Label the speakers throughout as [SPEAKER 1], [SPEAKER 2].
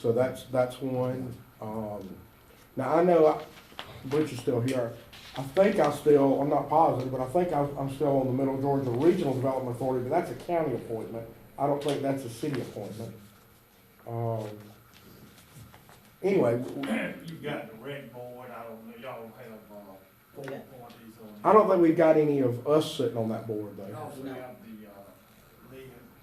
[SPEAKER 1] So that's, that's one. Um, now I know I- Butch is still here. I think I still, I'm not positive, but I think I'm, I'm still on the Middle Georgia Regional Development Authority, but that's a county appointment. I don't think that's a city appointment. Um, anyway,
[SPEAKER 2] You got the rec board, I don't know, y'all don't have, uh, four parties on.
[SPEAKER 1] I don't think we've got any of us sitting on that board
[SPEAKER 2] You
[SPEAKER 1] though.
[SPEAKER 2] also have the, uh, Lee,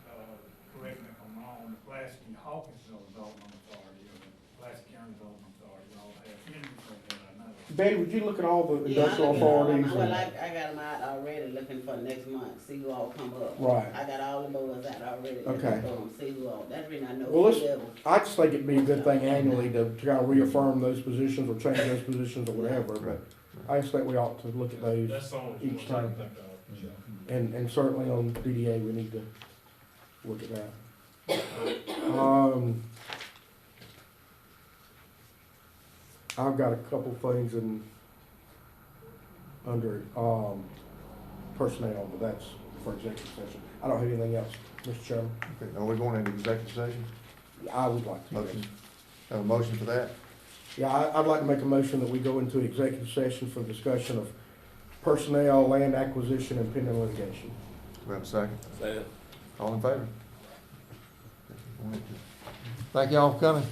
[SPEAKER 2] uh, correct me if I'm wrong, the Plasky Hawkins Development Authority, or the Plasky County Development Authority, y'all have interest on that, I know.
[SPEAKER 1] Betty, would you look at all the
[SPEAKER 3] Yeah, I
[SPEAKER 1] industrial
[SPEAKER 3] look at all mine.
[SPEAKER 1] authorities?
[SPEAKER 3] Well,
[SPEAKER 1] and-
[SPEAKER 3] I, I got them out already looking for next month, see who all come up.
[SPEAKER 1] Right.
[SPEAKER 3] I got all the boards out already looking for
[SPEAKER 1] Okay.
[SPEAKER 3] them, see who all, that's reason I know
[SPEAKER 1] Well, let's-
[SPEAKER 3] who level.
[SPEAKER 1] I just think it'd be a good thing annually to, to kind of reaffirm those positions or change those positions or whatever, but I just think we ought to look at those.
[SPEAKER 4] That's the only
[SPEAKER 1] Each
[SPEAKER 4] one I
[SPEAKER 1] time.
[SPEAKER 4] can think of. Joe.
[SPEAKER 1] And, and certainly on DDA, we need to look at that. Um, I've got a couple things in, under, um, personnel, but that's for executive session. I don't have anything else, Mr. Chairman.
[SPEAKER 5] Okay, now we're going into executive session?
[SPEAKER 1] I would like to.
[SPEAKER 5] Motion, have a motion for that?
[SPEAKER 1] Yeah, I, I'd like to make a motion that we go into executive session for discussion of personnel, land acquisition, and pending litigation.
[SPEAKER 5] We have a second? All in favor? Thank y'all for coming.